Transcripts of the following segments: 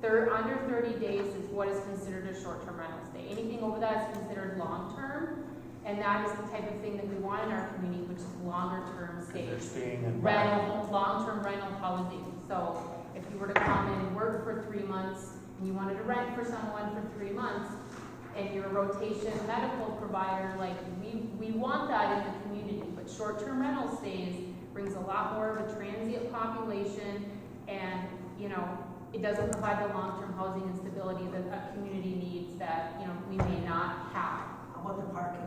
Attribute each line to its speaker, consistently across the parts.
Speaker 1: thir under thirty days is what is considered a short-term rental stay. Anything over that is considered long-term, and that is the type of thing that we want in our community, which is longer-term
Speaker 2: Because they're
Speaker 1: stays.
Speaker 2: staying in.
Speaker 1: Rental, long-term rental housing, so if you were to come in and work for three months, and you wanted to rent for someone for three months, and you're a rotation medical provider, like, we, we want that in the community, but short-term rental stays brings a lot more of a transient population, and, you know, it doesn't provide the long-term housing and stability that a community needs that, you know, we may not have.
Speaker 3: How about the parking?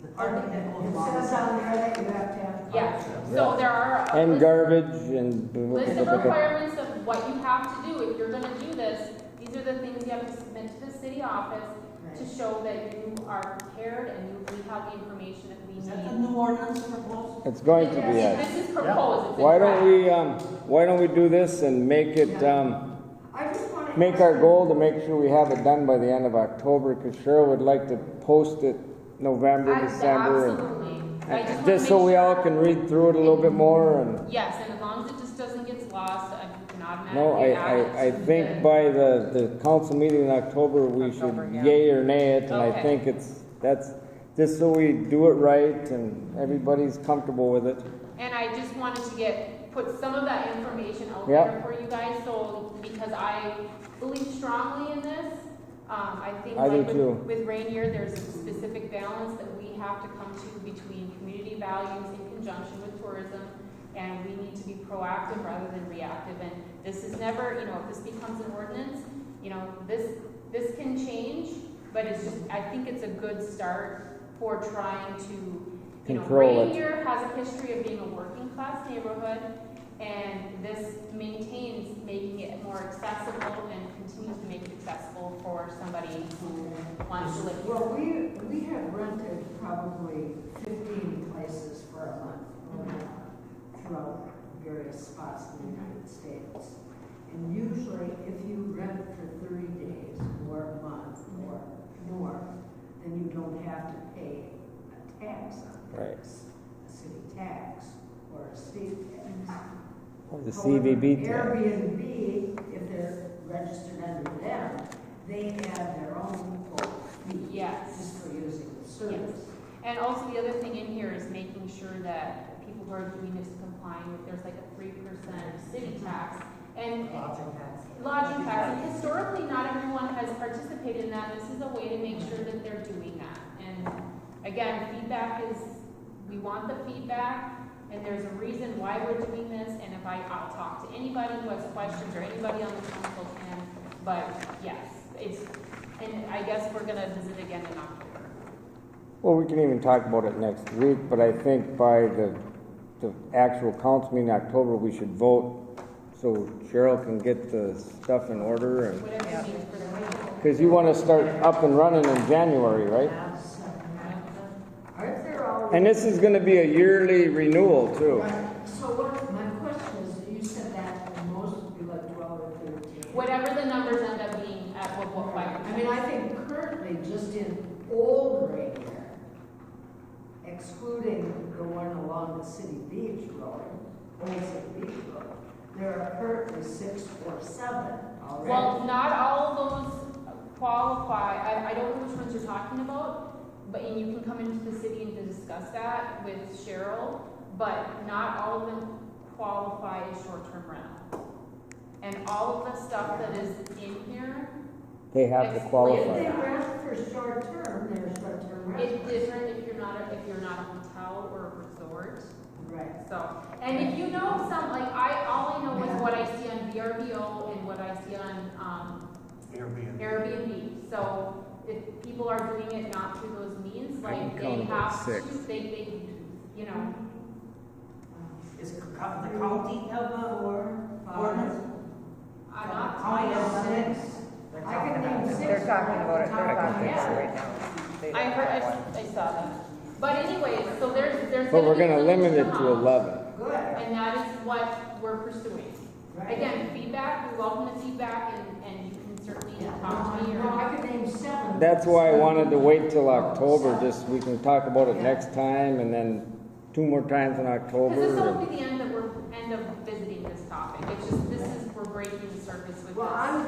Speaker 3: The
Speaker 1: Parking.
Speaker 3: parking that goes
Speaker 4: It
Speaker 3: along.
Speaker 4: says on there that you have to have.
Speaker 1: Yeah, so there are. a
Speaker 5: And
Speaker 1: list-
Speaker 5: garbage and.
Speaker 1: List of requirements of what you have to do if you're gonna do this, these are the things you have to submit to the city office to show that you are prepared and you- we have the information that we
Speaker 3: Is that the
Speaker 1: need.
Speaker 3: new ordinance proposed?
Speaker 5: It's going to be,
Speaker 1: This-
Speaker 5: a-
Speaker 1: This is proposed, it's in
Speaker 5: why don't
Speaker 1: draft.
Speaker 5: we, um, why don't we do this and make it, um,
Speaker 4: I just want to.
Speaker 5: make our goal to make sure we have it done by the end of October, cause Cheryl would like to post it November,
Speaker 1: I-
Speaker 5: December. and-
Speaker 1: Absolutely. I
Speaker 5: and
Speaker 1: wanna
Speaker 5: Just so
Speaker 1: make
Speaker 5: we all
Speaker 1: sure-
Speaker 5: can read through it a little bit more and,
Speaker 1: Yes, and as long as it just doesn't get lost, I can automatically.
Speaker 5: no, I,
Speaker 1: add it
Speaker 5: I, I
Speaker 1: to the-
Speaker 5: think by the, the council meeting in October, we should
Speaker 6: October, yeah.
Speaker 5: yay or nay it, and I
Speaker 1: Okay.
Speaker 5: think it's, that's, just so we do it right and everybody's comfortable with it.
Speaker 1: And I just wanted to get, put some of that information out
Speaker 5: Yeah.
Speaker 1: there for you guys, so, because I believe strongly in this. Um, I think
Speaker 5: I do
Speaker 1: like
Speaker 5: too.
Speaker 1: with, with Rainier, there's a specific balance that we have to come to between community values in conjunction with tourism. And we need to be proactive rather than reactive, and this is never, you know, if this becomes an ordinance, you know, this, this can change, but it's just, I think it's a good start for trying to, you know,
Speaker 5: Control it.
Speaker 1: Rainier has a history of being a working class neighborhood, and this maintains making it more accessible and continues to make it accessible for somebody who wants to live here.
Speaker 4: Well, we, we have rented probably fifteen places for a month or more throughout various spots in the United States. And usually, if you rent for thirty days or a month or more, then you don't have to pay a tax on
Speaker 5: Right.
Speaker 4: this, a city tax or a state tax.
Speaker 5: Or The
Speaker 4: However,
Speaker 5: CVB tax.
Speaker 4: Airbnb, if they're registered under them, they have their own quote fee.
Speaker 1: Yes.
Speaker 4: Just for using the service.
Speaker 1: And also, the other thing in here is making sure that people who are doing this complying, with there's like a three percent city tax. And
Speaker 3: Lodging tax.
Speaker 1: lodging tax, and historically, not everyone has participated in that, this is a way to make sure that they're doing that. And again, feedback is, we want the feedback, and there's a reason why we're doing this, and if I, I'll talk to anybody who has questions, or anybody on the council can, but yes, it's, and I guess we're gonna visit again in October.
Speaker 5: Well, we can even talk about it next week, but I think by the, the actual council meeting in October, we should vote so Cheryl can get the stuff in order and,
Speaker 1: Whatever it means for the people.
Speaker 5: because you want to start up and running in January, right?
Speaker 4: Aren't there all?
Speaker 5: And this is going to be a yearly renewal too.
Speaker 4: So what, my question is, you said that the most would be like twelve or thirteen.
Speaker 1: Whatever the numbers end up being at what, what, like,
Speaker 4: I mean, I think currently, just in old Rainier, excluding the one along the city beach road, Old City Beach Road, there are currently six or seven already.
Speaker 1: Well, not all of those qualify, I, I don't know which ones you're talking about, but, and you can come into the city and discuss that with Cheryl, but not all of them qualify as short-term rental. And all of the stuff that is in here
Speaker 5: They have to
Speaker 4: If they
Speaker 5: qualify.
Speaker 4: rent for short term, they're short term
Speaker 1: is
Speaker 4: rentals.
Speaker 1: different if you're not, a- if you're not a hotel or a resort.
Speaker 4: Right.
Speaker 1: So, and if you know some, like, I, all I know is what I see on VRBO and what I see on, um,
Speaker 2: Airbnb.
Speaker 1: Airbnb, so if people are doing it not through those means,
Speaker 5: I can
Speaker 1: like they
Speaker 5: count about
Speaker 1: have to,
Speaker 5: six.
Speaker 1: they, they, you know,
Speaker 3: Is it co- the county have a ordinance?
Speaker 1: are not.
Speaker 3: County has six. They're
Speaker 4: I could
Speaker 3: talking about
Speaker 4: name
Speaker 3: it.
Speaker 4: six.
Speaker 6: They're talking about it, they're talking about it right now. They don't
Speaker 1: I heard, I,
Speaker 6: have one.
Speaker 1: s- I saw that, but anyways, so there's, there's.
Speaker 5: But we're
Speaker 1: be
Speaker 5: going to limit it
Speaker 1: some
Speaker 5: to
Speaker 1: amount,
Speaker 5: 11.
Speaker 4: Good.
Speaker 1: And that is what we're pursuing.
Speaker 4: Right.
Speaker 1: Again, feedback, we welcome the feedback and, and you can certainly talk to me
Speaker 4: No,
Speaker 1: or.
Speaker 4: Uh, I could name seven.
Speaker 5: That's why I wanted to wait till October,
Speaker 4: Seven.
Speaker 5: just, we can talk about it next time and then two more times in October.
Speaker 1: Cause this
Speaker 5: and-
Speaker 1: won't be the end that we're, end of visiting this topic, it's just, this is, we're breaking the surface with this.
Speaker 4: Well, I'm